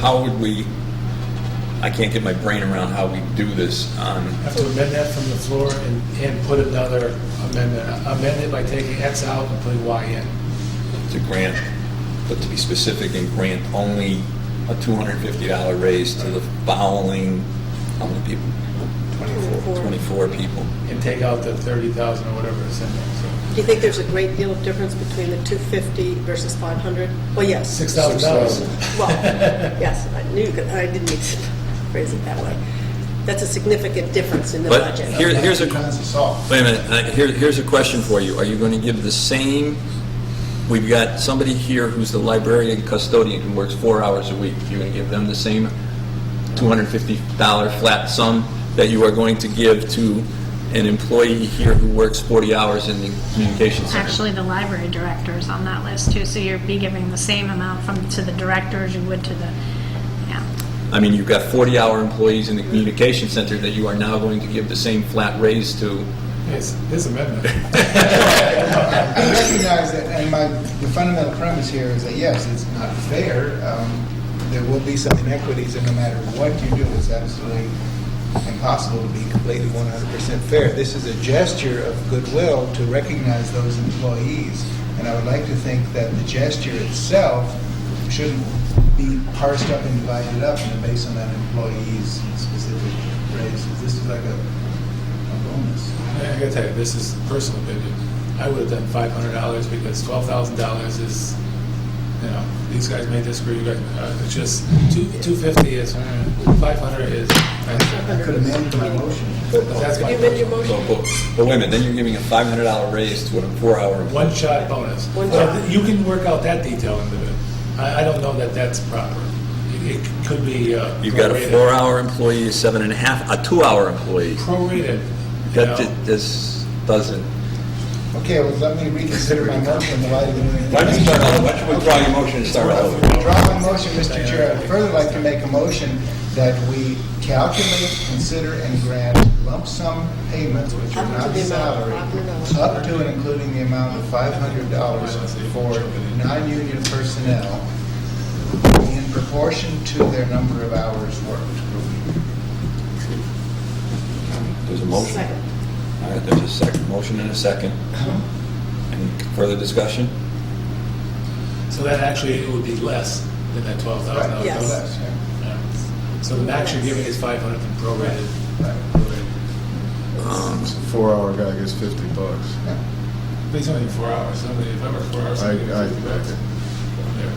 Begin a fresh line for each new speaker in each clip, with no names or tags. How would we, I can't get my brain around how we do this on,
have to amend that from the floor and, and put another amendment, amend it by taking X out and putting Y in.
to grant, but to be specific and grant only a $250 raise to the following, how many people?
24.
24 people.
And take out the thirty thousand or whatever is in there,
Do you think there's a great deal of difference between the 250 versus 500? Well, yes.
so. Six thousand dollars.
Well, yes, I knew, you could- I didn't mean to phrase it that way. That's a significant difference in the
But
budget.
here- here's a-
Two kinds of salt.
Wait a minute, I- here, here's a question for you. Are you going to give the same, we've got somebody here who's the librarian custodian who works four hours a week. You're going to give them the same $250 flat sum that you are going to give to an employee here who works 40 hours in the communications center?
Actually, the library director is on that list too, so you'd be giving the same amount from, to the director as you would to the, yeah.
I mean, you've got 40-hour employees in the communication center that you are now going to give the same flat raise to.
Yes, this amendment.
I recognize that, and my, the fundamental premise here is that, yes, it's not fair. Um, There will be some inequities, and no matter what you do, it's absolutely impossible to be completely 100% fair. This is a gesture of goodwill to recognize those employees, and I would like to think that the gesture itself shouldn't be parsed up and divided up and based on that employee's specific raises. This is like a a bonus.
I gotta tell you, this is personal opinion. I would have done five hundred dollars because twelve thousand dollars is, you know, these guys may disagree, you guys, uh, it's just, two, two fifty is, mm, five hundred is.
I could amend my motion.
Could
that's my
you amend your
But
motion?
but- but wait a minute, then you're giving a $500 raise to a four-hour employee.
One shot bonus.
One
Now,
shot.
You can work out that detail into it. I, I don't know that that's proper. It it could be. uh,
You've got a
prorated.
four-hour employee, a seven and a half, a two-hour employee.
Prorated. you
That,
know.
ju- this doesn't.
Okay, well, let me reconsider my motion in the light of the new
Why don't you
information.
start all- why don't you withdraw your motion and start all over?
Draw my motion, Mr. Chair. I'd further like to make a motion that we calculate, consider, and grant lump sum payments, which are
Up to
not
the amount of
salary,
$500.
up to and including the amount of $500 for non-union personnel in proportion to their number of hours worked.
There's a motion.
Second.
All right, there's a second, motion and a second. Any further discussion?
So that actually, it would be less than that twelve thousand
Right,
dollars.
Yes.
no less, yeah.
So the max you're giving is five hundred and prorated. Prorated.
Um,
Four hour guy gets fifty bucks.
But it's only four hours, somebody, if I work four hours,
I,
I'm gonna
I,
get fifty bucks. Yeah.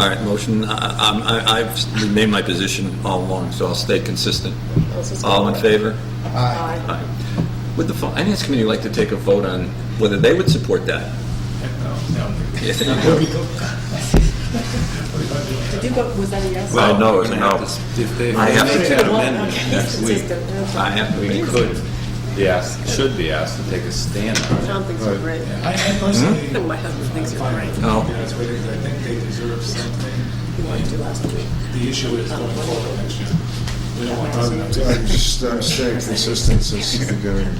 All right, motion, I, I'm- I, I've remained my position all along, so I'll stay consistent.
This is-
All in favor?
Aye.
Aye.
Aye. Would the Finance Committee like to take a vote on whether they would support that?
Heck, No, no.
Yes.
Did you vote, was that a yes?
Well, no, it's a no.
If they,
I have to-
make an amendment
Okay,
next week,
consistent, okay.
I have to
we
make-
could be asked, should be asked to take a stand on
Tom
it.
thinks we're great.
I, I personally.
Hmm?
No, my husband thinks you're
I'm
right.
fine.
No.
Yeah, that's what it is. I think they deserve something.
You wanted to last week.
The issue is going forward next year. We don't want to talk
I'm
about
just, I'm staying consistent since the beginning.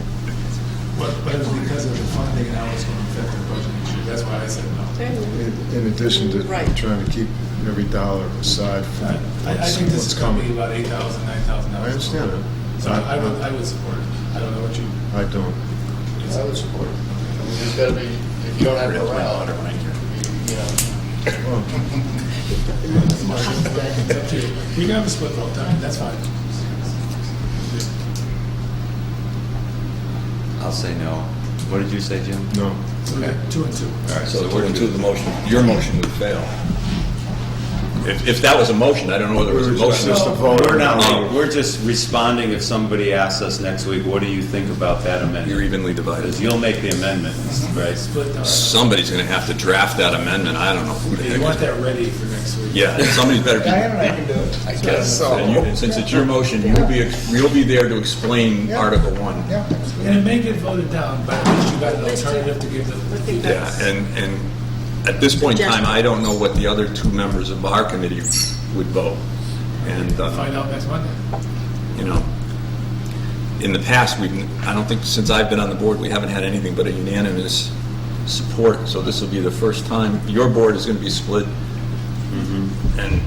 But, but it's because of the funding and how it's going to affect the budget next year. That's why I said no.
In in addition to
Right.
trying to keep every dollar aside from
I, I
what's
think this is
what's
going to be
coming.
about eight thousand, nine thousand
I
dollars.
understand it.
So I would, I would support it. I don't know what you.
I don't.
I would support it. I mean, There's gotta be, if you don't have morale, you know,
Well,
It's up to you. You can have a split vote, Tom. That's fine.
I'll say no. What did you say, Jim?
No.
So we got two and two.
All right,
So
we're
according to
good.
the motion, your motion would fail. If, if that was a motion, I don't know whether it was a
It's
motion.
just a vote.
We're not, we're just responding if somebody asks us next week, what do you think about that
You're
amendment?
evenly divided.
Because you'll make the amendment, right?
Split, all right.
Somebody's going to have to draft that amendment. I don't know who the
Yeah, You want
heck.
that ready for next week.
Yeah, somebody's better
Diane
be.
and I can do it. I
Yes, and you- and since it's your motion, you'll be, ex- you'll be there to explain
Yeah.
Article 1.
Yeah, absolutely.
And it may get voted down, but at least you got an
At least you-
alternative to give the.
I think
Yeah,
that's,
and, and at this point in time, I don't know what the other two members of our committee would vote. And, uh,
Find out next Monday.
you know, in the past, we've, I don't think, since I've been on the board, we haven't had anything but a unanimous support, so this will be the first time, your board is going to be split and